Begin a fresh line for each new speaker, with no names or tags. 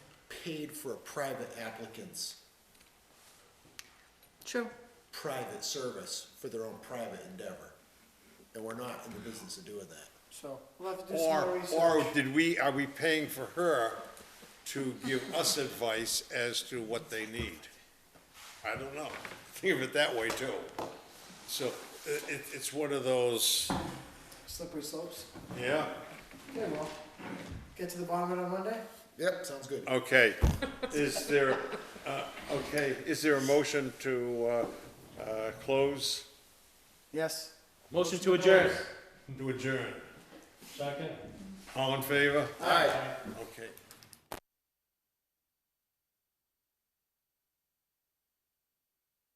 paid for a private applicant's
True.
private service for their own private endeavor. And we're not in the business of doing that.
So we'll have to do some more
Or,
research.
or did we, are we paying for her to give us advice as to what they need? I don't know. Think of it that way too. So i- it, it's one of those,
Slippery slopes.
yeah,
Okay, well, get to the bottom of it on Monday?
Yep, sounds good.
okay. Is there, uh, okay, is there a motion to, uh, uh, close?
Yes.
Motion to adjourn.
To adjourn.
Second.
All in favor?
All right.
Okay.